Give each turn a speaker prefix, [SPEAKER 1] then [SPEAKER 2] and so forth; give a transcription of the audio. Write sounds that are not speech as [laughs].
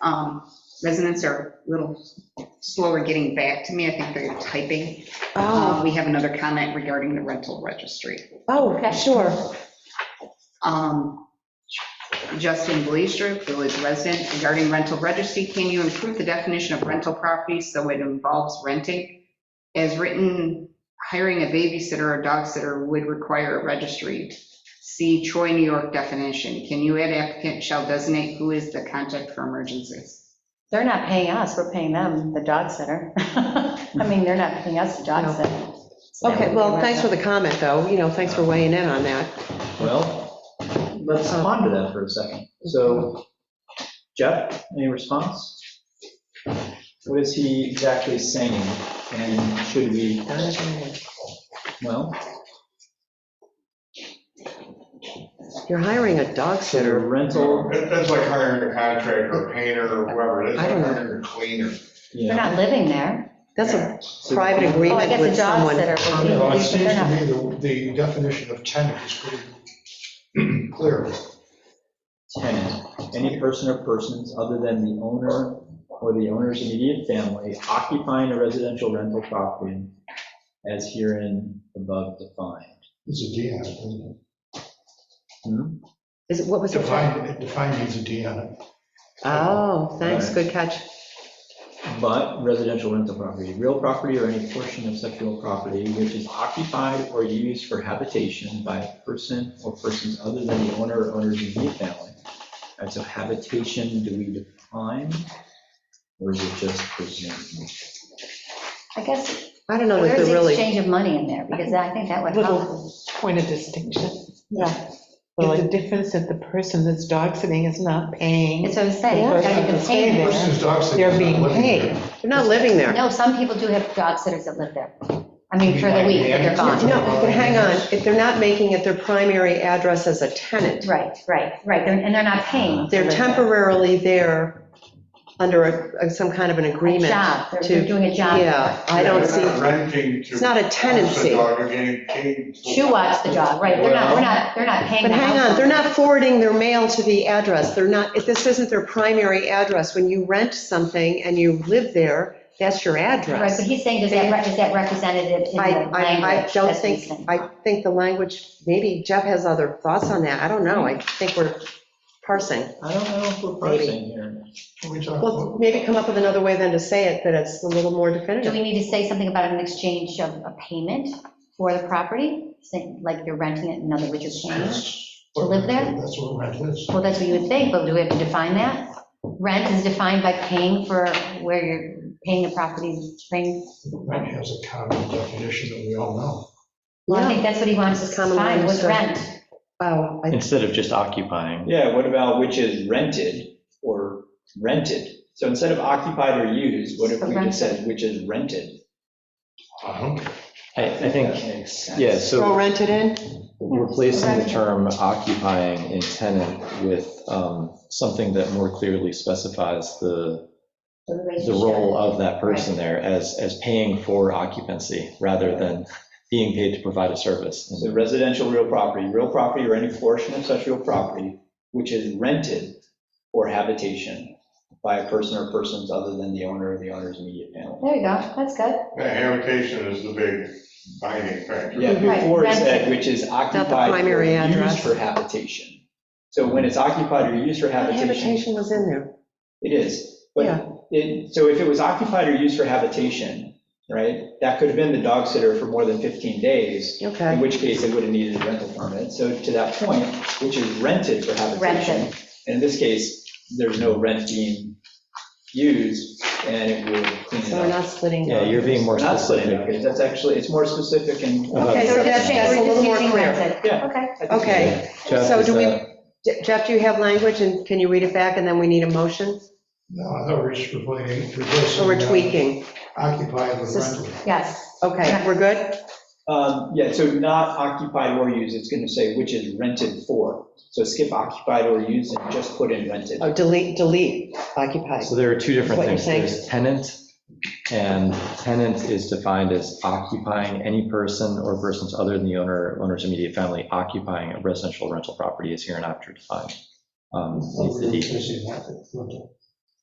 [SPEAKER 1] um, residents are a little slower getting back to me. I think they're typing. Uh,
[SPEAKER 2] Um,
[SPEAKER 3] Oh,
[SPEAKER 1] We have another comment regarding the rental registry.
[SPEAKER 3] oh, sure.
[SPEAKER 1] Um, Justin Glazer, village resident, regarding rental registry, can you improve the definition of rental property so it involves renting? As written, hiring a babysitter or dog sitter would require a registry. See Troy, New York definition. Can you add applicant shall designate who is the contact for emergencies?
[SPEAKER 2] They're not paying us, we're paying them, the dog sitter. [laughs] I mean, they're not paying us the dog sitter. So that
[SPEAKER 3] Okay,
[SPEAKER 2] would
[SPEAKER 3] well,
[SPEAKER 2] be
[SPEAKER 3] thanks for the
[SPEAKER 2] rental.
[SPEAKER 3] comment, though. You know, thanks for weighing in on that.
[SPEAKER 4] Well, let's ponder that for a second. So Jeff, any response? What is he exactly saying? And should we, well,
[SPEAKER 3] You're hiring a dog
[SPEAKER 4] should a
[SPEAKER 3] sitter.
[SPEAKER 4] rental,
[SPEAKER 5] That- That's like hiring a contractor, a painter, or whoever, that's
[SPEAKER 3] I
[SPEAKER 5] like
[SPEAKER 3] don't know.
[SPEAKER 5] hiring a cleaner.
[SPEAKER 2] They're
[SPEAKER 4] yeah.
[SPEAKER 2] not living there.
[SPEAKER 3] That's a
[SPEAKER 4] so-
[SPEAKER 3] private
[SPEAKER 2] Oh, I
[SPEAKER 3] agreement
[SPEAKER 2] guess the
[SPEAKER 3] with
[SPEAKER 2] dog
[SPEAKER 3] someone.
[SPEAKER 2] sitter would be,
[SPEAKER 5] Well, It
[SPEAKER 2] but
[SPEAKER 5] seems
[SPEAKER 2] they're
[SPEAKER 5] to
[SPEAKER 2] not.
[SPEAKER 5] me the, the definition of tenant is pretty clear.
[SPEAKER 4] tenant, any person or persons other than the owner or the owner's immediate family occupying a residential rental property as herein above defined.
[SPEAKER 5] It's a D on it, isn't
[SPEAKER 4] Hmm?
[SPEAKER 3] Is it, what
[SPEAKER 5] it?
[SPEAKER 3] was it?
[SPEAKER 5] Defined, it defined means a D on it.
[SPEAKER 3] Oh, thanks, good catch.
[SPEAKER 4] But residential rental property, real property or any portion of such real property which is occupied or used for habitation by a person or persons other than the owner or owner's immediate family. All right, so habitation, do we define? Or is it just presumed?
[SPEAKER 2] I guess
[SPEAKER 3] I don't know that
[SPEAKER 2] there's
[SPEAKER 3] they're
[SPEAKER 2] the
[SPEAKER 3] really,
[SPEAKER 2] exchange of money in there, because I think that would help.
[SPEAKER 6] little point of distinction.
[SPEAKER 2] Yeah.
[SPEAKER 6] There's a difference that the person that's dog sitting is not paying.
[SPEAKER 2] That's what I'm saying, it's gotta be
[SPEAKER 6] Yeah.
[SPEAKER 2] contained.
[SPEAKER 6] Yeah.
[SPEAKER 5] Versus dog sitting.
[SPEAKER 6] They're being paid.
[SPEAKER 3] they're not living there.
[SPEAKER 2] No, some people do have dog sitters that live there. I mean, for the week, but they're gone.
[SPEAKER 3] No, but hang on, if they're not making it their primary address as a tenant,
[SPEAKER 2] Right, right, right, They're- and they're not paying. to
[SPEAKER 3] they're
[SPEAKER 2] live there.
[SPEAKER 3] temporarily there under a- some kind of an agreement.
[SPEAKER 2] Job, they're
[SPEAKER 3] to-
[SPEAKER 2] they're doing a job.
[SPEAKER 3] Yeah, I don't see,
[SPEAKER 5] Renting to.
[SPEAKER 3] it's not a tenancy.
[SPEAKER 5] The dog, you're getting paid. for-
[SPEAKER 2] Shoe watch the dog, right, they're not, we're not, they're not paying.
[SPEAKER 3] But
[SPEAKER 2] the
[SPEAKER 3] hang on,
[SPEAKER 2] household.
[SPEAKER 3] they're not forwarding their mail to the address, they're not, if this isn't their primary address. When you rent something and you live there, that's your
[SPEAKER 2] Right, but
[SPEAKER 3] address.
[SPEAKER 2] he's saying, does that, re- is that representative in the
[SPEAKER 3] I,
[SPEAKER 2] language?
[SPEAKER 3] I, I don't
[SPEAKER 2] That's what
[SPEAKER 3] think,
[SPEAKER 2] he's saying.
[SPEAKER 3] I think the language, maybe Jeff has other thoughts on that, I don't know, I think we're parsing.
[SPEAKER 4] I don't know if we're parsing here.
[SPEAKER 5] Can we talk
[SPEAKER 3] Well,
[SPEAKER 5] about-
[SPEAKER 3] maybe come up with another way then to say it, that it's a little more
[SPEAKER 2] Do
[SPEAKER 3] definitive.
[SPEAKER 2] we need to say something about an exchange of a payment for the property? Say, Like you're renting it, in other words, you're paying?
[SPEAKER 5] That's
[SPEAKER 2] To live there?
[SPEAKER 5] That's what rent is.
[SPEAKER 2] Well, that's what you would think, but do we have to define that? Rent is defined by paying for where you're paying the property, paying.
[SPEAKER 5] Rent has a common definition that we all know.
[SPEAKER 2] Well, I
[SPEAKER 3] Yeah.
[SPEAKER 2] think that's what he wants us to
[SPEAKER 3] Common
[SPEAKER 2] define, what's
[SPEAKER 3] language.
[SPEAKER 2] rent?
[SPEAKER 3] Oh, I-
[SPEAKER 7] instead of just occupying.
[SPEAKER 4] Yeah, what about which is rented or rented? So instead of occupied or used, what if we just said which is rented?
[SPEAKER 5] I don't
[SPEAKER 7] I, I
[SPEAKER 4] That
[SPEAKER 7] think,
[SPEAKER 4] makes sense.
[SPEAKER 7] yeah,
[SPEAKER 3] throw
[SPEAKER 7] so
[SPEAKER 3] rented in?
[SPEAKER 7] replacing the term occupying in tenant with um, something that more clearly specifies the, the role of that person there as, as paying for occupancy rather than being paid to provide a service.
[SPEAKER 4] So residential real property, real property or any portion of such real property which is rented for habitation by a person or persons other than the owner or the owner's immediate family.
[SPEAKER 2] There you go, that's good.
[SPEAKER 5] Yeah, habitation is the big binding factor.
[SPEAKER 4] Yeah,
[SPEAKER 2] Right,
[SPEAKER 4] before it said
[SPEAKER 2] rented.
[SPEAKER 4] which is occupied or
[SPEAKER 3] primary
[SPEAKER 4] used
[SPEAKER 3] address.
[SPEAKER 4] for habitation. So when it's occupied or used for habitation,
[SPEAKER 3] Habitation was in there.
[SPEAKER 4] It is,
[SPEAKER 3] Yeah.
[SPEAKER 4] but it, so if it was occupied or used for habitation, right, that could have been the dog sitter for more than 15 days, in
[SPEAKER 3] Okay,
[SPEAKER 4] which case it would have needed a rental permit. So to that point, which is rented for habitation.
[SPEAKER 2] Rented.
[SPEAKER 4] And in this case, there's no rent being used and it would clean it
[SPEAKER 3] so we're
[SPEAKER 4] up.
[SPEAKER 3] not splitting.
[SPEAKER 7] Yeah, you're being more
[SPEAKER 4] We're Not splitting it,
[SPEAKER 7] specific. Uh-huh.
[SPEAKER 4] because that's actually, it's more specific and.
[SPEAKER 7] about
[SPEAKER 3] Okay, so
[SPEAKER 7] the-
[SPEAKER 3] that's- that's a little more clear.
[SPEAKER 4] Yeah.
[SPEAKER 2] Okay.
[SPEAKER 4] I think-
[SPEAKER 3] Okay.
[SPEAKER 7] Jeff,
[SPEAKER 3] so
[SPEAKER 7] is
[SPEAKER 3] do we-
[SPEAKER 7] that-
[SPEAKER 3] Je- Jeff, do you have language, and can you read it back, and then we need a motion?
[SPEAKER 5] No, I thought we were just replacing. replacing,
[SPEAKER 3] Or we're
[SPEAKER 5] uh,
[SPEAKER 3] tweaking?
[SPEAKER 5] Occupy with
[SPEAKER 2] Sus-
[SPEAKER 5] rental.
[SPEAKER 2] Yes,
[SPEAKER 3] Okay, we're good?
[SPEAKER 4] Um, Yeah, so not occupied or used, it's going to say which is rented for. So skip occupied or used and just put in rented.
[SPEAKER 3] Oh, delete, delete occupied.
[SPEAKER 7] So there are two different
[SPEAKER 3] What you're
[SPEAKER 7] things.
[SPEAKER 3] saying.
[SPEAKER 7] There's tenant, and tenant is defined as occupying any person or persons other than the owner, owner's immediate family occupying a residential rental property is here and after defined. Um,
[SPEAKER 5] I thought
[SPEAKER 7] needs
[SPEAKER 5] we were
[SPEAKER 7] to be-
[SPEAKER 5] replacing that with rental.